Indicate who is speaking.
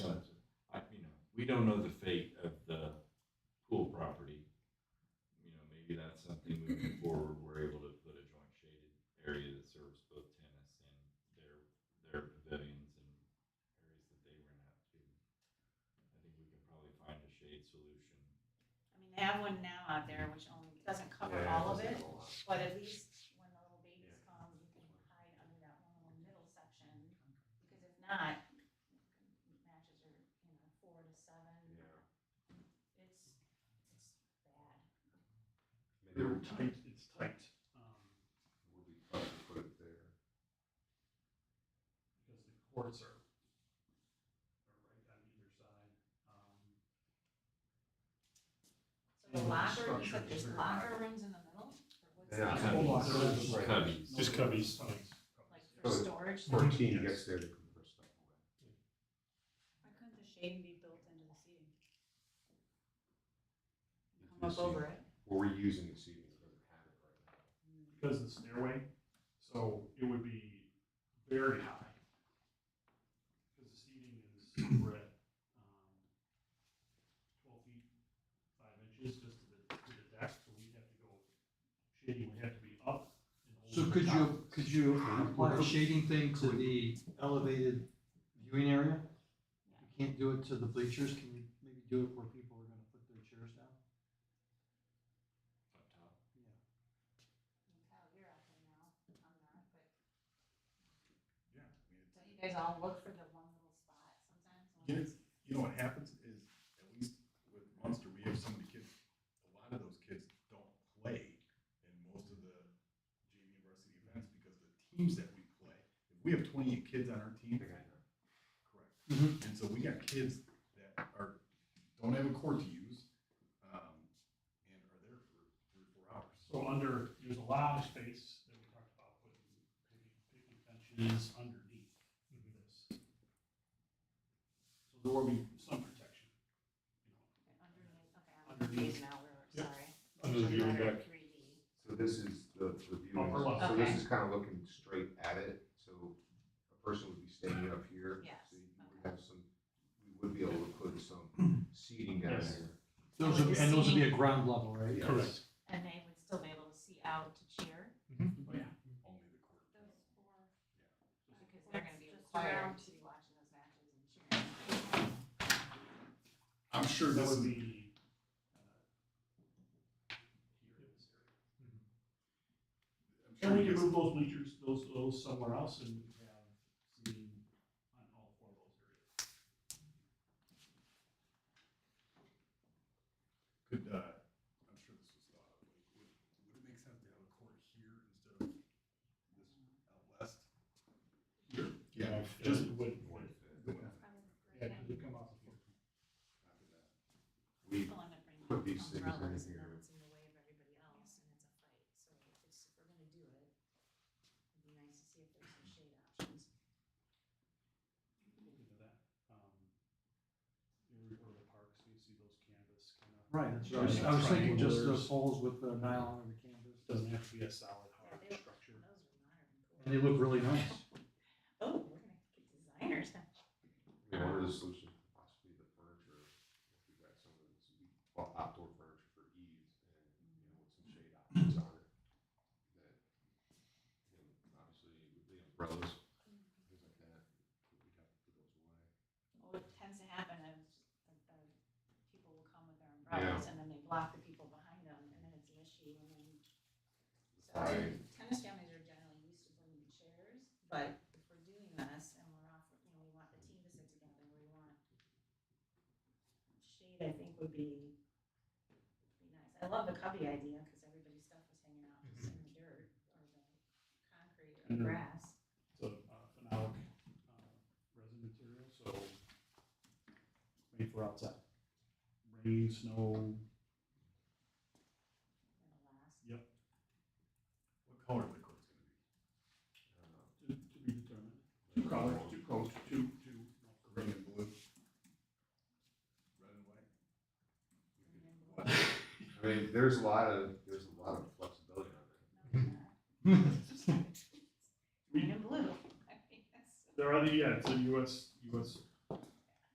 Speaker 1: we don't know the fate of the pool property. You know, maybe that's something moving forward, we're able to put a joint shaded area that serves both tennis and their, their pavilions and areas that they rent out to. I think we can probably find a shade solution.
Speaker 2: I mean, they have one now out there, which only doesn't cover
Speaker 1: Yeah,
Speaker 2: all of
Speaker 1: that's a
Speaker 2: it,
Speaker 1: lot.
Speaker 2: but at least when the little babies come, you can hide under that one little middle section. Because if not, matches are, you know, four to
Speaker 1: Yeah.
Speaker 2: seven. It's, it's bad.
Speaker 3: They were tight, it's tight. um,
Speaker 1: Would we probably put it there?
Speaker 3: Because the courts are, are right on either side. um,
Speaker 2: So the
Speaker 3: And the
Speaker 2: locker, you said
Speaker 3: structure
Speaker 2: there's
Speaker 3: is very
Speaker 2: locker
Speaker 3: high.
Speaker 2: rooms in the middle? Or what's
Speaker 4: Yeah.
Speaker 2: that?
Speaker 3: Hold on, there
Speaker 1: Cubbies.
Speaker 3: is-
Speaker 4: Right.
Speaker 1: Cubbies.
Speaker 3: Just cubbies.
Speaker 2: Like for
Speaker 4: So-
Speaker 2: storage?
Speaker 3: For-
Speaker 4: Fourteen
Speaker 3: Yes.
Speaker 4: gets there to compress stuff away.
Speaker 5: Why couldn't the shade be built into the seating?
Speaker 2: Come up over it. Mm.
Speaker 4: Well, we're using the seating, it doesn't have it right now.
Speaker 3: Because of the stairway, so it would be very high. Because the seating is, we're at, um, twelve feet, five inches just to the, to the deck, so we'd have to go, shading would have to be up. and
Speaker 6: So
Speaker 3: over
Speaker 6: could
Speaker 3: the
Speaker 6: you,
Speaker 3: top.
Speaker 6: could you apply a shading thing to the elevated viewing area? You can't do it to the bleachers, can you maybe do it where people are gonna put their chairs down?
Speaker 1: Up top.
Speaker 2: Kyle, you're out there now, I'm not, but
Speaker 7: Yeah, I mean, it's-
Speaker 2: don't you guys all look for the one little spot sometimes? when
Speaker 7: Yeah.
Speaker 2: it's-
Speaker 7: you know what happens is, at least with Munster, we have so many kids, a lot of those kids don't play in most of the JV and varsity events because the teams that we play, if we have twenty-eight kids on our team,
Speaker 4: Think I know.
Speaker 3: Mm-hmm.
Speaker 7: correct. And so we got kids that are, don't have a court to use, um, and are there for three, or four hours.
Speaker 3: So under, there's a lot of space that we talked about putting picnic benches underneath this. So there will be some protection, you know.
Speaker 2: Underneath, okay, I'm confused now, we're,
Speaker 3: Yep.
Speaker 2: sorry.
Speaker 6: Under the viewing
Speaker 2: Letter 3D.
Speaker 4: So this is the, the viewing,
Speaker 3: Upper left.
Speaker 4: so this
Speaker 2: Okay.
Speaker 4: is kind of looking straight at it, so a person would be standing up here.
Speaker 2: Yes,
Speaker 4: So you
Speaker 2: okay.
Speaker 4: would have some, we would be able to put some seating down
Speaker 3: Yes.
Speaker 4: there.
Speaker 6: Those would, and those would be at ground level, right?
Speaker 4: Yeah.
Speaker 3: Correct.
Speaker 2: And they would still be able to see out to cheer,
Speaker 3: Oh, yeah.
Speaker 7: Only the court.
Speaker 2: because they're gonna be
Speaker 5: Just
Speaker 2: required
Speaker 5: around.
Speaker 2: to be watching those matches and cheering.
Speaker 7: I'm sure
Speaker 3: That
Speaker 7: this
Speaker 3: would
Speaker 7: is,
Speaker 3: be. uh, here in this area.
Speaker 7: I'm
Speaker 3: And
Speaker 7: sure
Speaker 3: we
Speaker 7: you
Speaker 3: can
Speaker 7: guys-
Speaker 3: move those bleachers, those, those somewhere else and have seating on all four of those areas.
Speaker 7: Could, uh, I'm sure this was thought of, like, would, would it make sense to have a court here instead of this out west? Yeah, just.
Speaker 3: Just would,
Speaker 4: More
Speaker 3: would,
Speaker 4: fit.
Speaker 7: the one-
Speaker 3: yeah, it would come off the floor.
Speaker 7: copy that.
Speaker 4: We,
Speaker 2: People end up bringing
Speaker 4: Put these things in
Speaker 2: umbrellas and
Speaker 4: here.
Speaker 2: then it's in the way of everybody else and it's a fight, so if it's, if we're gonna do it, it'd be nice to see if there's some shade options.
Speaker 3: look into that. Um, You ever go to the parks, and you see those canvas kind of.
Speaker 6: Right, that's what I was, I was thinking just those holes with the nylon or the canvas,
Speaker 3: Doesn't have to be a solid hard
Speaker 2: Yeah, they-
Speaker 3: structure.
Speaker 2: Those are modern
Speaker 6: and
Speaker 2: cool.
Speaker 6: they look really nice.
Speaker 2: Oh, we're gonna get designers.
Speaker 4: we ordered a solution, possibly the furniture, if we got some of this, we bought outdoor furniture for ease and, you know, with some shade options on it. That, you know, obviously with the umbrellas, things like that, we'd have to put those away.
Speaker 2: Well, what tends to happen is that the people will come with their umbrellas and then they block the people behind them and then it's an issue and then. So
Speaker 4: Right.
Speaker 2: tennis families are generally used to bringing chairs, but if we're doing this and we're off, you know, we want the team to sit together, we want. Shade, I think would be, would be nice. I love the cubby idea because everybody's stuff was hanging out just in the dirt or the concrete or
Speaker 3: Mhm.
Speaker 2: grass.
Speaker 3: It's a uh, phenolic uh, resin material, so it's made for outside. Rain, snow,
Speaker 2: It'll last.
Speaker 7: What color are the court's gonna be?
Speaker 4: Uh,
Speaker 3: to, to be determined. Two colors, two coats, two, two.
Speaker 7: Green and blue? Red and white?
Speaker 4: I mean, there's a lot of, there's a lot of flexibility on that.
Speaker 2: Green and blue. I mean, that's-
Speaker 3: There are the, yeah, it's a US, US